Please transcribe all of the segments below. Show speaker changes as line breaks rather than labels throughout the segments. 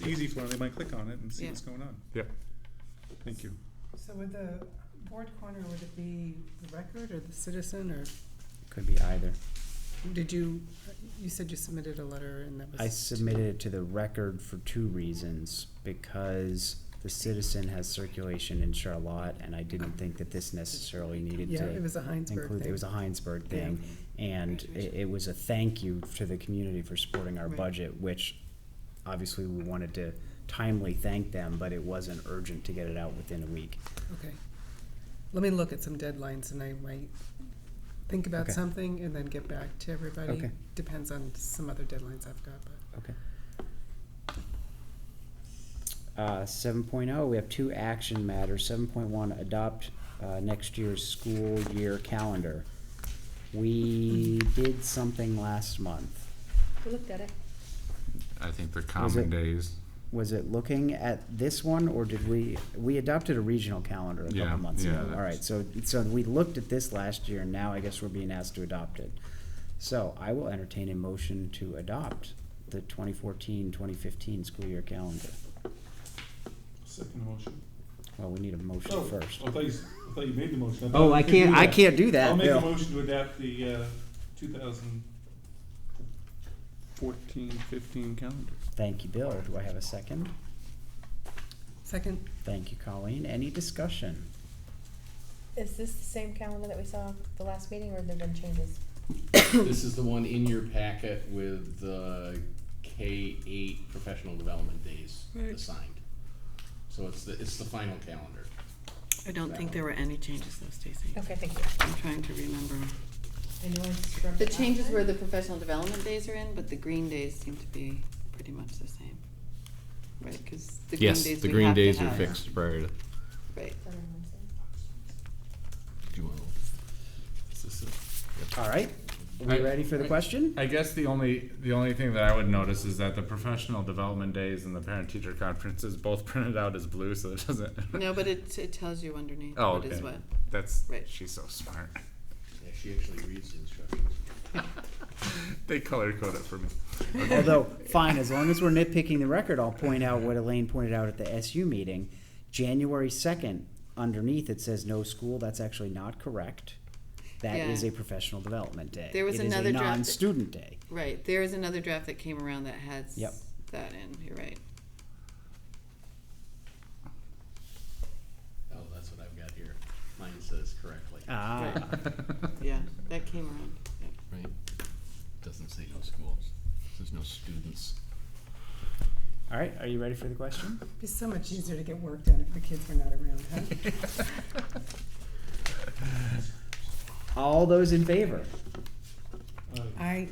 It's easy for them, they might click on it and see
Yeah.
what's going on.
Yeah.
Thank you.
So would the board corner, would it be the record or the citizen, or
Could be either.
did you, you said you submitted a letter and that was.
I submitted it to the record for two reasons, because the citizen has circulation in Charlotte, and I didn't think that this necessarily needed
Yeah, it
to
was a Heinsberg
include, it
thing.
was a Heinsberg thing. And it,
Graduation.
it was a thank you to the community for supporting our
Right.
budget, which obviously we wanted to timely thank them, but it wasn't urgent to get it out within a week.
Okay. Let me look at some deadlines and I might think about
Okay.
something and then get back to everybody.
Okay.
Depends on some other deadlines I've got, but.
Okay. Uh, seven we have two action matters. Seven point one, adopt, uh, next year's school year calendar. We did something last month.
We looked at it.
I think the
it-
common days.
Was it looking at this one, or did we, we adopted a regional calendar a
Yeah,
couple months
yeah,
ago?
that
All right,
was-
so, so we looked at this last year, and now I guess we're being asked to adopt it. So I will entertain a motion to adopt the 2014-2015 school year calendar.
Second motion.
Well, we need a
Oh.
motion first.
I thought you, I thought you made the motion.
Oh, I can't, I can't do
I'll
that,
make a
Bill.
motion to adapt the, uh, two thousand fourteen, fifteen calendar.
Thank you, Bill. Do I have a second?
Second,
Thank you, Colleen. Any discussion?
Is this the same calendar that we saw the last meeting, or have there been changes?
This is the one in your packet with the K eight professional development days assigned. So it's the, it's the final calendar.
I don't think there were any changes though, Stacy.
Okay, thank you.
I'm trying to remember.
I know I scrubbed
The
it last
changes
time.
where the professional development days are in, but the green days seem to be pretty much the same. Right, because the green days
Yes,
we have
the green
to
days are
have.
fixed prior to.
Right.
Other ones,
Do you want?
All right. Are we
I-
ready for the
I-
question?
I guess the only the only thing that I would notice is that the professional development days and the parent teacher conferences both printed out as blue, so it doesn't.
No, but it, it tells you underneath
Oh,
what is
okay.
what.
That's
Right.
she's so smart.
Yeah, she actually reads the instructions.
They color code it for me.
Although, fine, as long as we're nitpicking the record, I'll point out what Elaine pointed out at the SU meeting. January second, underneath it says no school. That's actually not correct. That is
Yeah.
a professional development day.
There was
It is a
another draft-
Non-student day.
Right, there is another draft that came around that has
Yep.
that in, you're right.
Oh, that's what I've got here. Mine says correctly.
Ah,
Yeah, that came around, yep.
Right. Doesn't say no schools. There's no students.
all right. Are you ready for the question?
it'd be so much easier to get work done if the kids were not around, huh?
All those in favor?
I,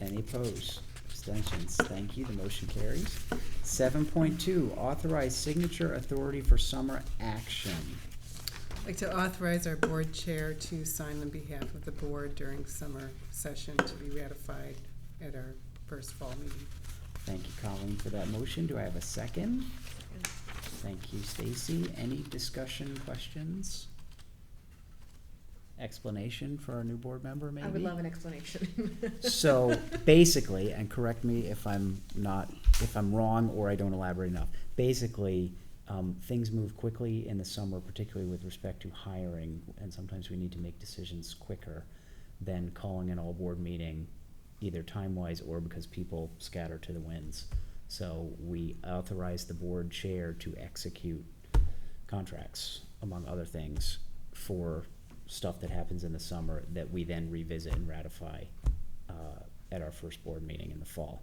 Any opposed? Abstentions? Thank you. The motion carries. Seven point two, authorize signature authority for summer action.
Like to authorize our board chair to sign on behalf of the board during summer session to be ratified at our first fall meeting.
Thank you, Colleen, for that motion. Do I have a second? Thank you, Stacy. Any discussion, questions? Explanation for our new board member, maybe?
yeah. I would love an explanation.
So basically, and correct me if I'm not, if I'm wrong or I don't elaborate enough, basically, um, things move quickly in the summer, particularly with respect to hiring, and sometimes we need to make decisions quicker than calling an all-board meeting, either time-wise or because people scatter to the winds. So we authorize the board chair to execute contracts, among other things, for stuff that happens in the summer that we then revisit and ratify uh, at our first board meeting in the fall.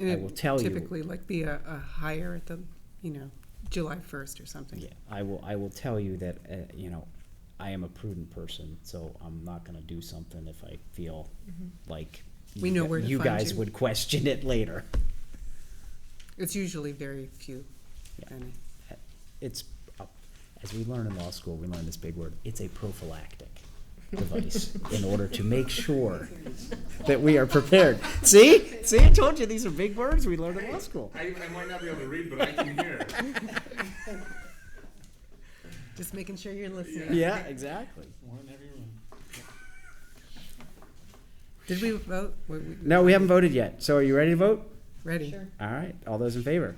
And
I
it
will
would
tell you-
Typically, like be a, a hire at the, you know, July first or something.
Yeah, I will, I will tell you that, uh, you know, I am a prudent person, so I'm not gonna do something if I feel like
We
you
know
gu-
where to
You
find
guys
you.
would question it later.
It's usually very few, if
Yeah.
any.
It's, a- as we learn in law school, we learn this big word, it's a prophylactic device in order to make sure that we are prepared. See? See, I told you, these are big words we learned in law school.
I, I might not be able to read, but I can hear.
Just making sure you're listening.
Yeah, exactly.
One in every room.
Did we vote? Were we-
No, we haven't voted yet. So are you ready to vote?
ready.
Sure.
All right, all those in favor?